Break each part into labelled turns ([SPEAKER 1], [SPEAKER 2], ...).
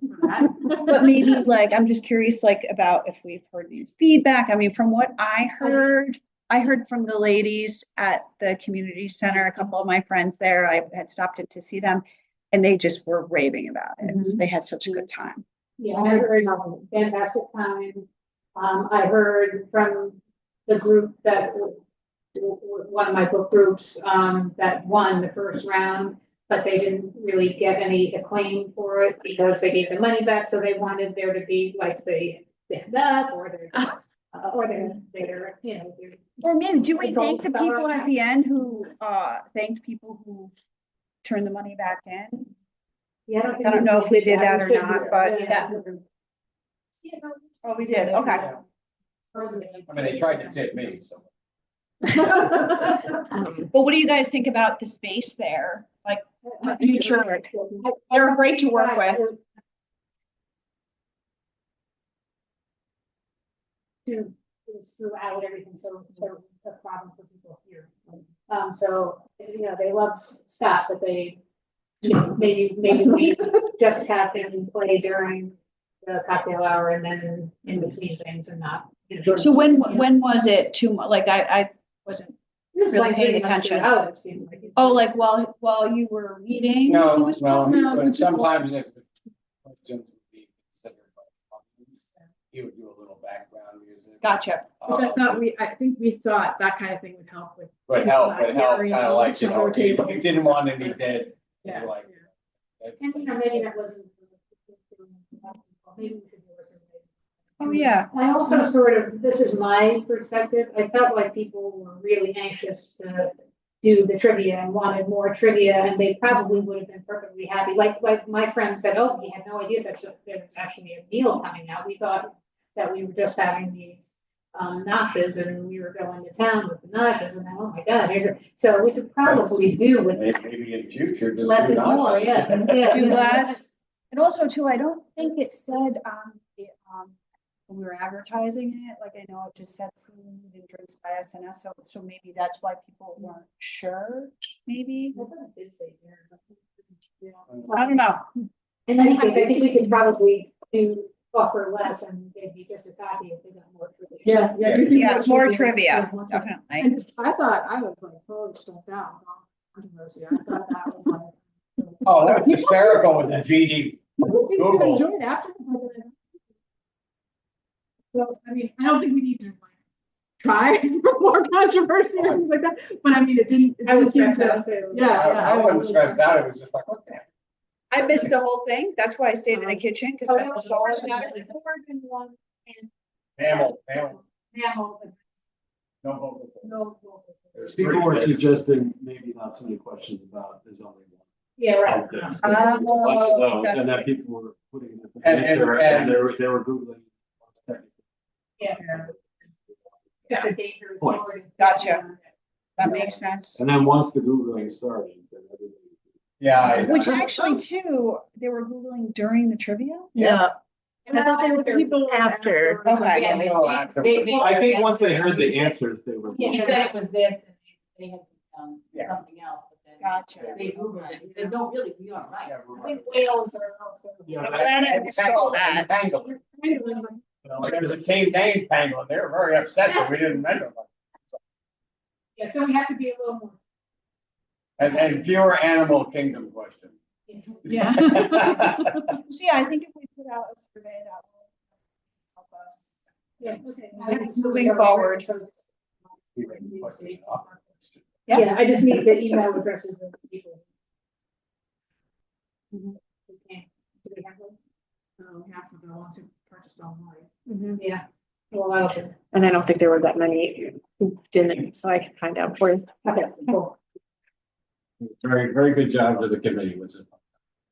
[SPEAKER 1] that.
[SPEAKER 2] But maybe like, I'm just curious, like about if we've heard any feedback. I mean, from what I heard, I heard from the ladies at the community center, a couple of my friends there, I had stopped in to see them. And they just were raving about it.
[SPEAKER 3] Mhm.
[SPEAKER 2] They had such a good time.
[SPEAKER 1] Yeah, I heard fantastic time. Um, I heard from the group that, w- w- w- one of my book groups, um, that won the first round, but they didn't really get any acclaim for it because they gave the money back, so they wanted there to be like the stand up or their,
[SPEAKER 2] Ah.
[SPEAKER 1] uh, or their, their, you know, their
[SPEAKER 2] Well, man, do we
[SPEAKER 1] It's all
[SPEAKER 2] thank the people
[SPEAKER 1] about-
[SPEAKER 2] at the end who, uh, thanked people who turned the money back in?
[SPEAKER 1] Yeah, I don't think.
[SPEAKER 2] I don't know if we did that or
[SPEAKER 1] should
[SPEAKER 2] not,
[SPEAKER 1] do it.
[SPEAKER 2] but
[SPEAKER 1] Yeah.
[SPEAKER 2] that-
[SPEAKER 1] Yeah, no,
[SPEAKER 2] Oh, we did, okay.
[SPEAKER 4] I mean, they tried to tip me, so.
[SPEAKER 2] But what do you guys think about the space there? Like, You tried.
[SPEAKER 1] I-
[SPEAKER 2] they're great to work with.
[SPEAKER 1] To, is throughout everything, so, so it's a problem for people here. Um, so, you know, they love s- Scott, but they, you know, maybe, maybe we just have them play during the cocktail hour and then in between things and not. you know,
[SPEAKER 2] So when,
[SPEAKER 1] Yeah.
[SPEAKER 2] when was it too, mu- like, I, I wasn't,
[SPEAKER 1] Just
[SPEAKER 2] really
[SPEAKER 1] like
[SPEAKER 2] paying
[SPEAKER 1] pretty much
[SPEAKER 2] attention.
[SPEAKER 1] throughout, it seemed like.
[SPEAKER 2] oh, like while, while you were meeting? it
[SPEAKER 4] No,
[SPEAKER 2] was probably-
[SPEAKER 4] no, but
[SPEAKER 2] which is-
[SPEAKER 4] sometimes if the questions would be considered by the audience, he would do a little background music.
[SPEAKER 2] Gotcha.
[SPEAKER 4] Uh,
[SPEAKER 3] Which I thought we, I think we thought that kind of thing would help with.
[SPEAKER 4] But help, but help, kind of like, you know, he
[SPEAKER 3] Rotating.
[SPEAKER 4] he didn't want any dead, you
[SPEAKER 3] Yeah.
[SPEAKER 4] know, like.
[SPEAKER 1] And you know, maybe that wasn't. Maybe we should do it.
[SPEAKER 2] Oh, yeah.
[SPEAKER 1] I also sort of, this is my perspective, I felt like people were really anxious to do the trivia and wanted more trivia, and they probably would have been perfectly happy. Like, like my friend said, oh, we had no idea that there was actually a meal coming out. We thought that we were just having these um, notches and we were going to town with the notches and then, oh my God, here's a, so we could probably do with
[SPEAKER 4] May- Maybe in future, just.
[SPEAKER 1] less
[SPEAKER 4] do
[SPEAKER 1] is
[SPEAKER 4] not.
[SPEAKER 1] more, yeah. yeah,
[SPEAKER 2] Do
[SPEAKER 1] you know,
[SPEAKER 2] less. And also too, I don't think it said on the, um, when we were advertising it, like I know it just said food and drinks by SNS, so, so maybe that's why people weren't sure, maybe?
[SPEAKER 1] I thought it did say there, but-
[SPEAKER 2] I don't know.
[SPEAKER 1] In any case, I think we could probably do offer less and they'd be just as happy if they got more. for it.
[SPEAKER 3] Yeah, yeah. you can
[SPEAKER 2] Yeah,
[SPEAKER 3] watch
[SPEAKER 2] more
[SPEAKER 3] it.
[SPEAKER 2] trivia,
[SPEAKER 3] Yeah.
[SPEAKER 2] definitely.
[SPEAKER 3] And just- I thought, I was like totally shut down. with all the controversy. I thought that was like.
[SPEAKER 4] Oh, that was hysterical with the GD.
[SPEAKER 3] People seem to
[SPEAKER 4] Google.
[SPEAKER 3] enjoy it after the fact. So, I mean, I don't think we need to like, try for more controversy or things like that, but I mean, it didn't. it
[SPEAKER 1] I was
[SPEAKER 3] didn't
[SPEAKER 1] stressed
[SPEAKER 3] seem to-
[SPEAKER 1] out too.
[SPEAKER 4] I
[SPEAKER 3] Yeah, yeah.
[SPEAKER 4] I wasn't stressed out, it was just like, what the heck?
[SPEAKER 2] I missed the whole thing, that's why I stayed in the
[SPEAKER 3] Um,
[SPEAKER 2] kitchen, because
[SPEAKER 1] So
[SPEAKER 2] I
[SPEAKER 1] it was
[SPEAKER 2] was all in
[SPEAKER 1] more
[SPEAKER 2] that.
[SPEAKER 1] than one and
[SPEAKER 4] mammal, mammal,
[SPEAKER 1] mammal, but
[SPEAKER 4] no vocal. cords.
[SPEAKER 1] no vocal.
[SPEAKER 4] There's three
[SPEAKER 5] People were
[SPEAKER 4] there.
[SPEAKER 5] suggesting maybe not so many questions about, there's only one.
[SPEAKER 1] Yeah, right.
[SPEAKER 5] of this.
[SPEAKER 2] Oh,
[SPEAKER 5] There's a bunch of those,
[SPEAKER 2] that's
[SPEAKER 5] And
[SPEAKER 2] right.
[SPEAKER 5] that people were putting. it in the
[SPEAKER 4] And- and-
[SPEAKER 5] answer, And
[SPEAKER 4] and-
[SPEAKER 5] they were, they were Googling. what's technically
[SPEAKER 1] Yeah. It's a dangerous
[SPEAKER 5] Points.
[SPEAKER 1] word.
[SPEAKER 2] Gotcha. That makes sense.
[SPEAKER 5] And then once the Googling started, then everybody.
[SPEAKER 4] Yeah. I-
[SPEAKER 2] Which actually too, they were Googling during the trivia?
[SPEAKER 6] Yeah,
[SPEAKER 1] And I thought they were.
[SPEAKER 3] People were
[SPEAKER 6] After.
[SPEAKER 3] after,
[SPEAKER 2] Okay.
[SPEAKER 4] Yeah, they all have to-
[SPEAKER 7] They- they-
[SPEAKER 5] Oh, I think once they heard the answers, they were.
[SPEAKER 7] He
[SPEAKER 1] Yeah.
[SPEAKER 7] said it was this, and they had um,
[SPEAKER 4] Yeah.
[SPEAKER 7] something else, but then.
[SPEAKER 2] Gotcha.
[SPEAKER 7] They Googled it, they said, no, really, we are right.
[SPEAKER 4] Yeah,
[SPEAKER 1] I
[SPEAKER 4] we're right.
[SPEAKER 1] think whales are also.
[SPEAKER 5] Yeah,
[SPEAKER 2] I'm
[SPEAKER 5] that-
[SPEAKER 2] glad I missed all that.
[SPEAKER 4] Tangled.
[SPEAKER 3] kind of like,
[SPEAKER 4] You know, Like, there's a team name tangled, they were very upset that we didn't mention them.
[SPEAKER 1] Yeah, so we have to be a little more.
[SPEAKER 4] And, and fewer animal kingdom questions.
[SPEAKER 2] Yeah.
[SPEAKER 4] Well,
[SPEAKER 2] So yeah, I think if we put out a survey, that will help us.
[SPEAKER 1] Yeah, okay.
[SPEAKER 2] Moving forward. Yeah.
[SPEAKER 1] Yeah, I just need the email addresses of the people.
[SPEAKER 3] Mhm.
[SPEAKER 1] Okay, do we have one?
[SPEAKER 3] um, half of the ones who purchased online.
[SPEAKER 1] Yeah. Well, I'll do.
[SPEAKER 6] and I don't think there were that many who didn't, so I can find out for you.
[SPEAKER 1] Okay, cool.
[SPEAKER 4] Very, very good job to the committee, was it?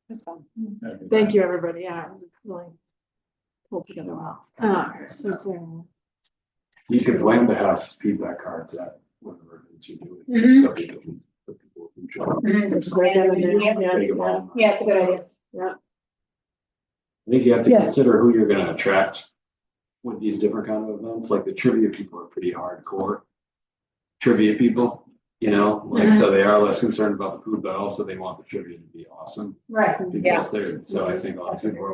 [SPEAKER 2] That's fun.
[SPEAKER 3] Thank you, everybody. Yeah, it was really pulled together well. Uh, so it's, um,
[SPEAKER 5] You could blame the house feedback cards at whatever it is you do.
[SPEAKER 1] Mhm.
[SPEAKER 5] So they can- so people can try to
[SPEAKER 3] it's right down in there. Yeah.
[SPEAKER 5] think about them.
[SPEAKER 1] Mm-hmm. Yeah, it's a good idea.
[SPEAKER 5] I think you have to
[SPEAKER 3] Yeah.
[SPEAKER 5] consider who you're gonna attract with these different kind of events, like the trivia people are pretty hardcore. Trivia people, you know, like, so they are less concerned about the food, but also they want the trivia to be awesome.
[SPEAKER 1] Right.
[SPEAKER 2] Yeah.
[SPEAKER 5] Because they're, so I think a lot of people are